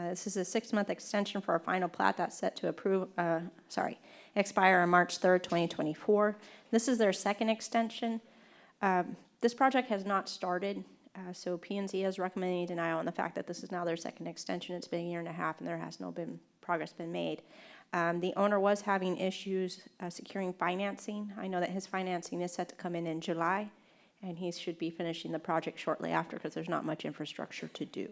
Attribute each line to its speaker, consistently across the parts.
Speaker 1: Uh, This is a six-month extension for our final plat that's set to approve, uh, sorry, expire on March 3rd, 2024. This is their second extension. Um, This project has not started, uh, so p and Z is recommending denial on the fact that this is now their second extension. It's been a year and a half, and there has no been, progress been made. Um, The owner was having issues uh, securing financing. I know that his financing is set to come in in July, and he should be finishing the project shortly after because there's not much infrastructure to do.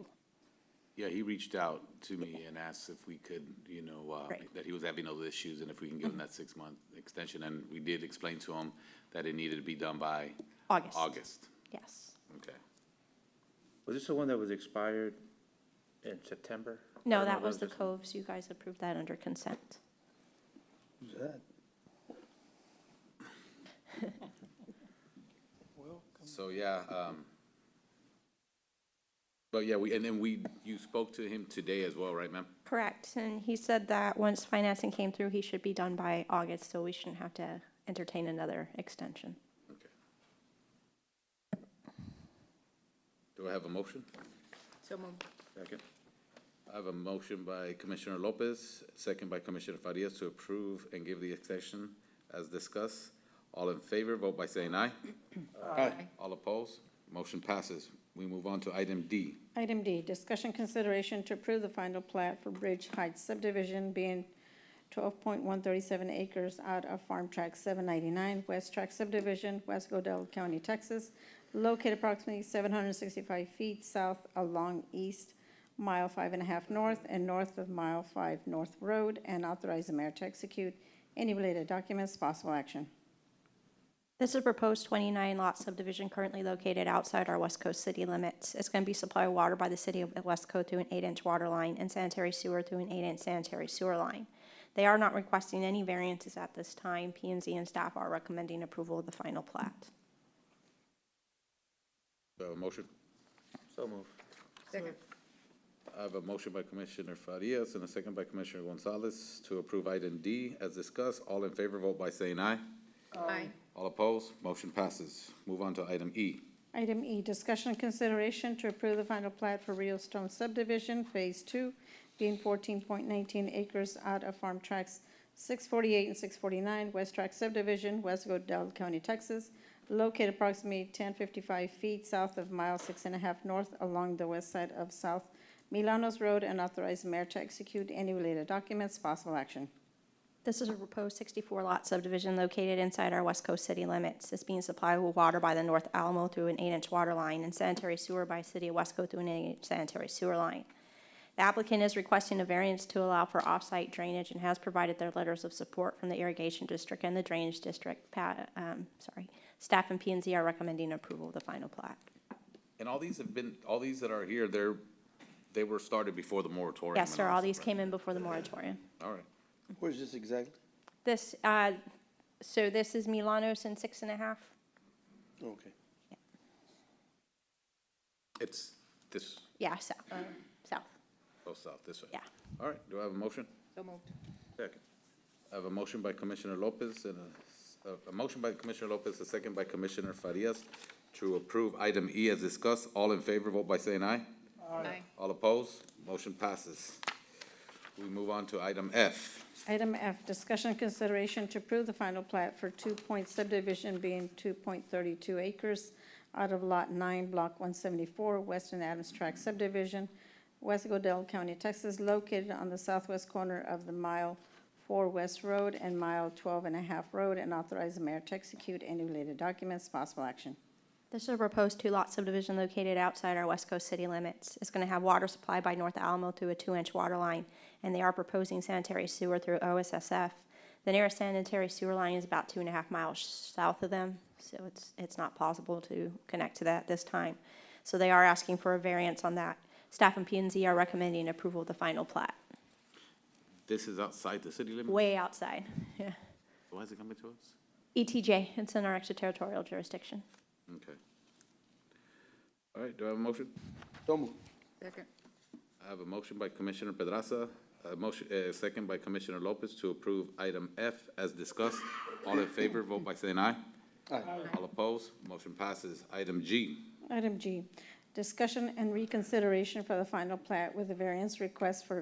Speaker 2: Yeah, he reached out to me and asked if we could, you know, uh,
Speaker 1: Right. Mm-hmm.
Speaker 2: that he was having those issues and if we can give him that six-month extension. And we did explain to him that it needed to be done by
Speaker 1: August.
Speaker 2: August.
Speaker 1: Yes.
Speaker 2: Okay.
Speaker 3: Was this the one that was expired in September?
Speaker 1: No,
Speaker 3: Or
Speaker 1: that was the
Speaker 3: this-
Speaker 1: Coves. You guys approved that under consent.
Speaker 3: was that?
Speaker 2: So, yeah, um, but yeah, we, and then we, you spoke to him today as well, right, ma'am?
Speaker 1: Correct. And he said that once financing came through, he should be done by August, so we shouldn't have to entertain another extension.
Speaker 2: Okay. Do I have a motion?
Speaker 3: Second.
Speaker 2: I have a motion by Commissioner Lopez, second by Commissioner Farias to approve and give the extension as discussed. All in favor, vote by saying aye. Aye. All opposed? Motion passes. We move on to item D.
Speaker 4: Item D, discussion consideration to approve the final plat for Bridge Heights subdivision being twelve point one thirty-seven acres out of Farm Track seven ninety-nine, West Track subdivision, West Godell County, Texas, located approximately seven hundred and sixty-five feet south along east mile five and a half north and north of mile five north road, and authorize the mayor to execute any related documents, possible action.
Speaker 1: This is a proposed 29 lot subdivision currently located outside our West Coast city limits. It's going to be supplied water by the city of West Coast through an eight-inch water line and sanitary sewer through an eight-inch sanitary sewer line. They are not requesting any variances at this time. p and Z and staff are recommending approval of the final plat.
Speaker 2: Do I have a motion?
Speaker 3: So moved.
Speaker 2: I have a motion by Commissioner Farias and a second by Commissioner Gonzalez to approve item D as discussed. All in favor, vote by saying aye.
Speaker 4: Aye.
Speaker 2: All opposed? Motion passes. Move on to item E.
Speaker 4: Item E, discussion and consideration to approve the final plat for Rio Stone subdivision, Phase Two, being fourteen point nineteen acres out of Farm Tracks six forty-eight and six forty-nine, West Track subdivision, West Godell County, Texas, located approximately ten fifty-five feet south of mile six and a half north along the west side of South Milanos Road, and authorize the mayor to execute any related documents, possible action.
Speaker 1: This is a proposed 64-lot subdivision located inside our West Coast city limits. It's being supplied with water by the North Alamo through an eight-inch water line and sanitary sewer by City of Wesco through an eight-inch sanitary sewer line. The applicant is requesting a variance to allow for off-site drainage and has provided their letters of support from the irrigation district and the drainage district. Pa- um, Sorry, staff and p and Z are recommending approval of the final plat.
Speaker 2: And all these have been, all these that are here, they're, they were started before the moratorium.
Speaker 1: Yes,
Speaker 2: and
Speaker 1: sir, all
Speaker 2: that
Speaker 1: these
Speaker 2: stuff,
Speaker 1: came in before the moratorium.
Speaker 2: right? All right.
Speaker 5: Where's this exactly?
Speaker 1: This, uh, so this is Milanos and six and a half?
Speaker 5: Okay.
Speaker 2: It's this,
Speaker 1: Yeah, south, south,
Speaker 2: go south, this way.
Speaker 1: yeah.
Speaker 2: All right, do I have a motion?
Speaker 3: Second.
Speaker 2: I have a motion by Commissioner Lopez and a, a- a motion by Commissioner Lopez, a second by Commissioner Farias to approve item E as discussed. All in favor, vote by saying aye. Aye. All opposed? Motion passes. We move on to item F.
Speaker 4: Item F, discussion and consideration to approve the final plat for two-point subdivision being two-point-thirty-two acres out of Lot Nine, Block one seventy-four, Western Adams Tract subdivision, West Godell County, Texas, located on the southwest corner of the Mile Four West Road and Mile Twelve and a Half Road, and authorize the mayor to execute any related documents, possible action.
Speaker 1: This is a proposed two-lot subdivision located outside our West Coast city limits. It's going to have water supply by North Alamo through a two-inch water line, and they are proposing sanitary sewer through OSSF. The nearest sanitary sewer line is about two and a half miles south of them, so it's, it's not possible to connect to that this time. So they are asking for a variance on that. Staff and p and Z are recommending approval of the final plat,
Speaker 2: This is outside the city limit?
Speaker 1: way outside. Yeah.
Speaker 2: Why is it coming to us?
Speaker 1: ETJ, it's in our extraterritorial jurisdiction.
Speaker 2: Okay. All right, do I have a motion?
Speaker 5: So moved.
Speaker 2: I have a motion by Commissioner Pedraza, a motion, uh, second by Commissioner Lopez to approve item F as discussed. All in favor, vote by saying aye.
Speaker 5: Aye.
Speaker 2: All opposed, motion passes. Item G.
Speaker 4: Item G, Discussion and reconsideration for the final plat with a variance request for